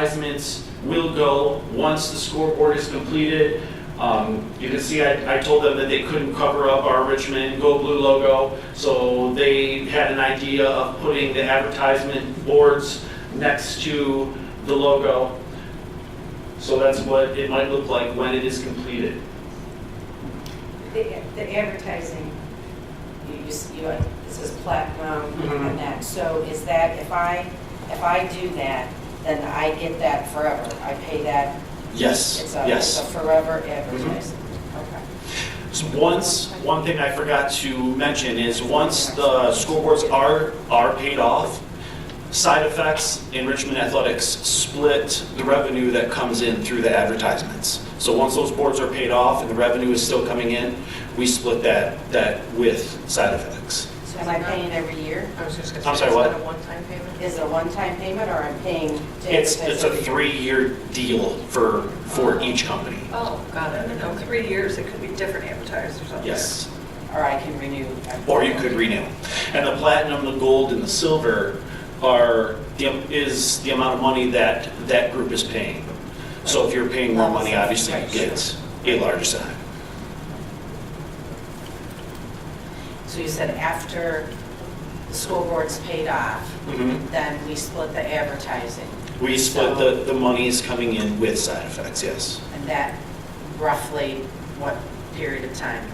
advertisements will go once the scoreboard is completed. Um, You can see, I, I told them that they couldn't cover up our Richmond Go Blue logo, so they had an idea of putting the advertisement boards next to the logo. So that's what it might look like when it is completed. The the advertising, you, you, s- you, uh, it says platinum Mhm. and that, so is that, if I, if I do that, then I get that forever, I pay that, Yes, it's a, it's a yes. Mm-hmm. forever advertising. Okay. So Once, one thing I forgot to mention is, once the scoreboards are, are paid off, side effects in Richmond Athletics split the revenue that comes in through the advertisements. So once those boards are paid off and the revenue is still coming in, we split that, that with side effects. So am I paying every year? I was just gonna I'm sorry, say, is what? that a one-time payment? Is it a one-time payment or I'm paying? to It's, it's advertise a every year? three-year deal for, for each company. Oh, got it. And in three years, it could be different advertisers on there. Yes. Or I can renew? or you could renew. And the platinum, the gold, and the silver are, the is the amount of money that that group is paying. So if you're paying more money, obviously you get a larger sign. So you said after the school board's paid off, then we split the advertising, We split the, the monies coming in with side effects, yes. and that roughly what period of time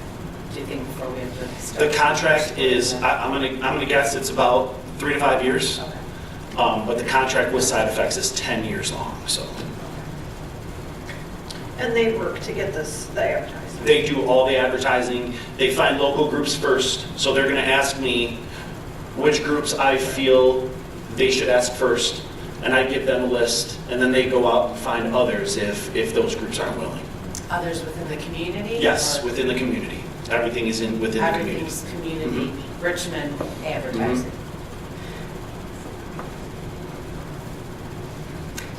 do you think before we have to The start? contract is, Mm-hmm. I- I'm gonna, I'm gonna guess it's about three to five years, Okay. um, but the contract with side effects is 10 years long, so. And they work to get this, the advertising. They do all the advertising. They find local groups first, so they're going to ask me which groups I feel they should ask first, and I give them a list, and then they go out and find others if, if those groups aren't willing. Others within the community? Yes, or within the community. Everything is in, within the community. Mm-hmm. Everything's community, Richmond advertising.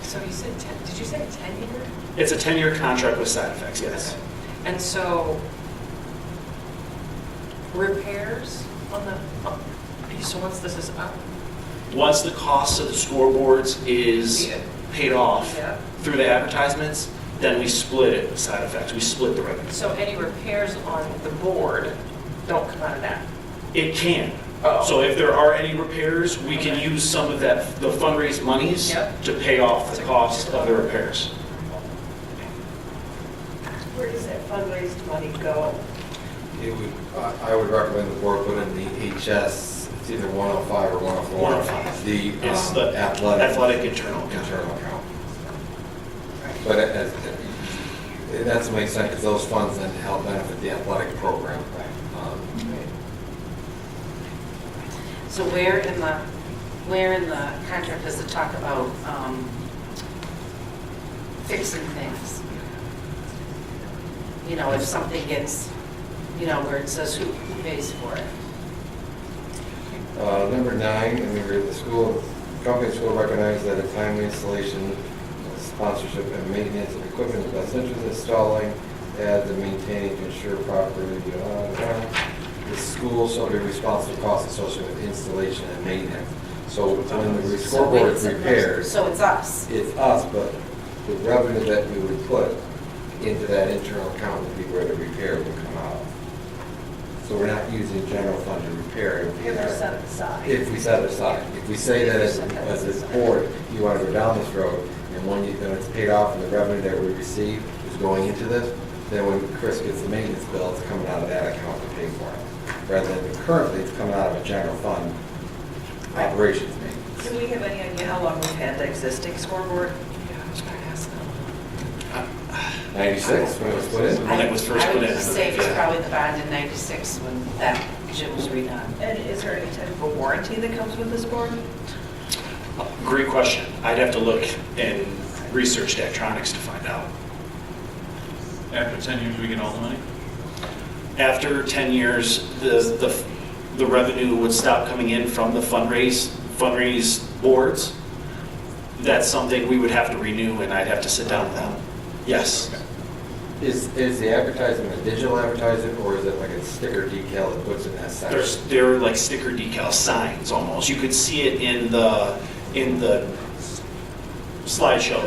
So you said 10, did you say 10 year? It's a 10-year contract with side effects, yes. And so repairs on the, oh, so once this is up? Once the cost of the scoreboards is Yeah. paid off Yeah. through the advertisements, then we split it with side effects. We split the revenue. So any repairs on the board don't come out of that? It can. Oh. So if there are any repairs, we can use some of that, the fundraised monies Yep. to pay off the cost of the repairs. Where does that fundraised money go? It would, I I would recommend the board put in the HS, it's either 105 or 104. 105. The It's um, the athletic athletic internal. internal account. But it- it- it- that's what makes sense, because those funds then help benefit the athletic program. Um, So where in the, where in the contract does it talk about um, fixing things? You know, if something gets, you know, where it says who who pays for it? uh, Number nine, and we read the school, company school recognizes that a timely installation, sponsorship, and maintenance of equipment is best interest in installing, add and maintaining to ensure properly. uh, The school shall be responsible for costs associated with installation and maintenance. So when the So wait, scoreboard it's is supposed- repaired, So it's us. it's us, but the revenue that we would put into that internal account would be where the repair would come out. So we're not using general fund to repair it. If they're set aside. If we set it aside, if we say that as, as this board, you want to go down this road, and when you, then it's paid off and the revenue that we receive is going into this, then when Chris gets the maintenance bill, it's coming out of that account to pay for it. Rather than currently, it's coming out of a general fund operations maintenance. Do we have any idea how long we've had the existing scoreboard? Yeah, I was gonna ask them. Ninety-six, when it was put in. When it was first put I in. would say it's probably the bond in 96 when that gym was redone. And is there any type of a warranty that comes with this board? Great question. I'd have to look and research Daktronics to find out. After 10 years, we get all the money? After 10 years, the, the, the revenue would stop coming in from the fundraise, fundraise boards. That's something we would have to renew and I'd have to sit down with them. Yes. Is, is the advertising a digital advertising, or is it like a sticker decal that puts in that There's, section? they're like sticker decal signs almost. You could see it in the, in the slideshow.